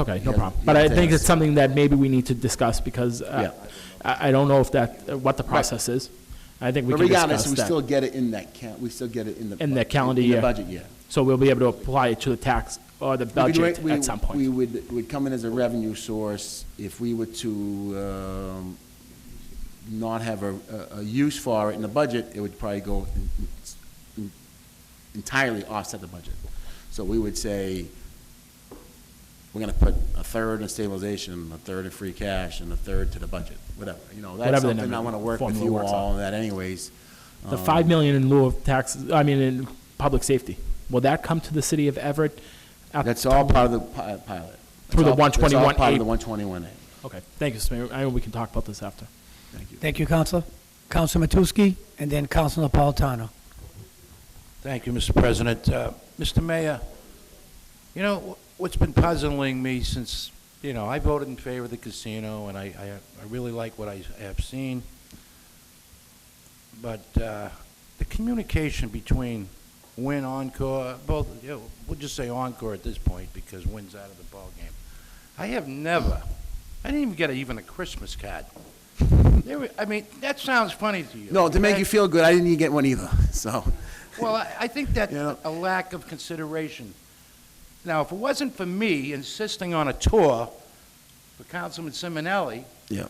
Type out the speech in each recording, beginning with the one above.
Okay, no Yeah, problem. yeah, But I it's- think it's something that maybe we need to discuss because uh, I, I don't know if that, what the process is. I think we But can regardless, discuss we still that. get it in that count, we still get it in the. In the bu- calendar In year. the budget year. So we'll be able to apply it to the tax or the We could do it- budget we- at some We point. would, would come in as a revenue source if we were to um, not have a, a- a use for it in the budget, it would probably go en- en- entirely offset the budget. So we would say, we're gonna put a third in stabilization, a third in free cash, and a third to the budget, whatever, you know, that's Whatever the something I number- wanna work with formula you works out. all on that anyways. The five million in lieu of taxes, I mean, in public safety, will that come to the city of Everett? at- That's all part of the pi- uh, pilot. Through the That's all- That's all part 121A. of the one twenty-one A. Okay, thank you, Mr. Mayor. I, we can talk about this after. Thank you, Counselor. Counselor Matusky, and then Counselor Napolitano. Thank you, Mr. President. Uh, Mr. Mayor, you know, wh- what's been puzzling me since, you know, I voted in favor of the casino, and I, I- I really like what I have seen, but uh, the communication between Wynn Encore, both, you know, we'll just say Encore at this point, because Wynn's out of the ballgame. I have never, I didn't even get a- even a Christmas card. There were- I mean, that sounds funny to you. No, to make okay? you feel good, I didn't even get one either, so. Well, I- I think that's You know- a lack of consideration. Now, if it wasn't for me insisting on a tour for Councilman Simonelli Yeah.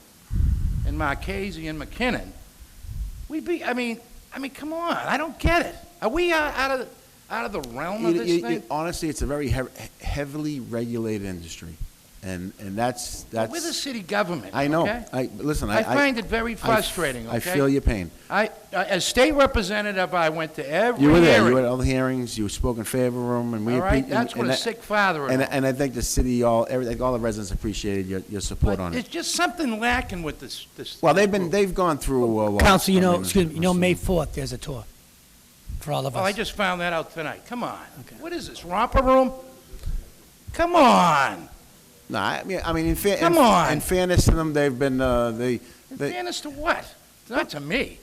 and Marchese and McKinnon, we'd be, I mean, I mean, come on, I don't get it. Are we out out of, out of the realm of It- this it- thing? it- Honestly, it's a very heav- heavily regulated industry, and, and that's, that's. We're the city government, I know, okay? I, listen, I. I find it very I f- frustrating, I okay? feel your pain. I, I- as state representative, I went to every You were there, you were at hearing. all the hearings, you spoke in favor of them, and we. All right, appre- and- that's what and a I- sick father And, is. and I think the city, all, everything, all the residents appreciated your, your support But on it. There's just something lacking with this, this. Well, they've group. been, they've gone through a lot. Counselor, you I know, mean, excuse me, you know, May listen. 4th, there's a tour for all of Well, Oh, I us. just found that out tonight. Come on. Okay. What is this, romper room? Come on. No, I mean, I mean, in fair, Come in, on. in fairness to them, they've been, uh, they, In they, fairness to what? Not to me.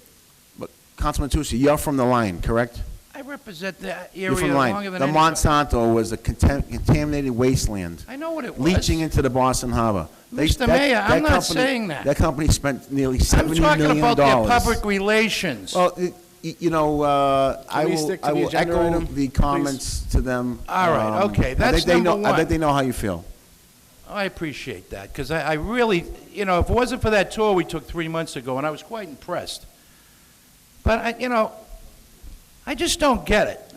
But Councilman Tucci, you're from the line, correct? I represent the You're area from the longer line. than The anyone. Monsanto was a contam- contaminated wasteland, I know what it was. leaching into the Boston Harbor. They- Mr. that- Mayor, I'm that not company- saying that. That company spent nearly I'm seventy million talking dollars. Oh, about their public relations. Well, y- y- you know, uh, I we will, stick to I the will agenda echo item, the please? comments to them. All right, Um, okay, I think that's they number know- I one. think they know how you feel. Oh, I appreciate that, because I, I really, you know, if it wasn't for that tour we took three months ago, and I was quite impressed. But I, you know, I just don't get it.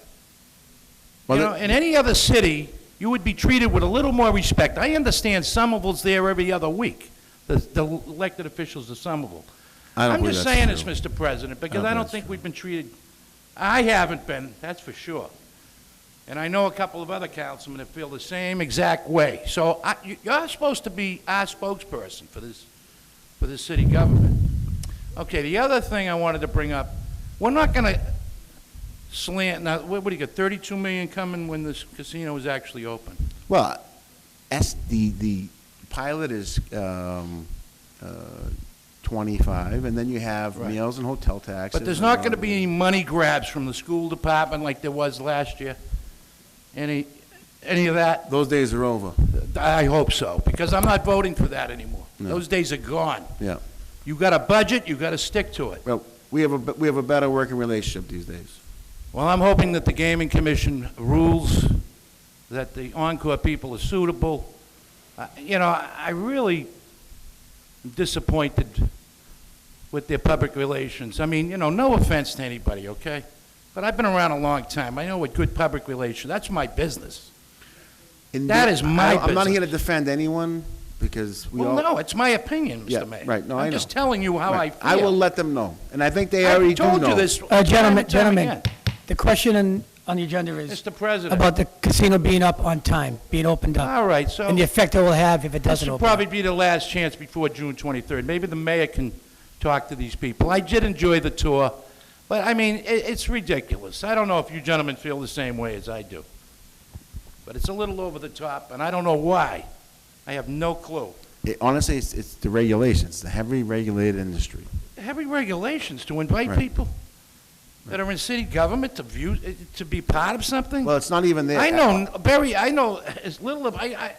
Well, you the- know, in any other city, you would be treated with a little more respect. I understand Somerville's there every other week, the, the elected officials of Somerville. I don't I'm believe just that's saying true. this, Mr. President, because don't I believe don't that's think we've been treated, I haven't been, that's for sure. And I know a couple of other councilmen that feel the same exact way. So I, you- you're supposed to be our spokesperson for this, for this city government. Okay, the other thing I wanted to bring up, we're not gonna slant, now, what, what do you got, thirty-two million coming when this casino is actually open? Well, S, the, the pilot is um, uh, 25, and then you have Right. meals and hotel taxes. But there's and not all gonna that. be any money grabs from the school department like there was last year? Any, any of that? Those days are over, I hope so, because I'm not voting for that anymore. No. Those days are gone. yeah. You got a budget, you got to stick to it. Well, we have a, be- we have a better working relationship these days. Well, I'm hoping that the Gaming Commission rules, that the Encore people are suitable. Uh, You know, I I really am disappointed with their public relations. I mean, you know, no offense to anybody, okay? But I've been around a long time. I know what good public relations, that's my business. And That the- is my I- I'm not business. here to defend anyone, because we all... Well, no, it's my opinion, Yeah, Mr. Mayor. right, no, I I'm just know. telling you how I Right. feel. I will let them know, and I think they already I do told you know. this. Uh, Gentlemen, time and time gentlemen, again. the question on on the agenda is Mr. President. about the casino being up on time, being opened up. All right, so And the effect it will have if it this doesn't will open up. probably be the last chance before June 23rd. Maybe the mayor can talk to these people. I did enjoy the tour, but I mean, it, it's ridiculous. I don't know if you gentlemen feel the same way as I do. But it's a little over the top, and I don't know why. I have no clue. It- Honestly, it's, it's the regulations, the heavily regulated industry. Heavy regulations to invite Right. people that are in city government to view, to be part of something? Well, it's not even there. I know Barry. I know as little of I. I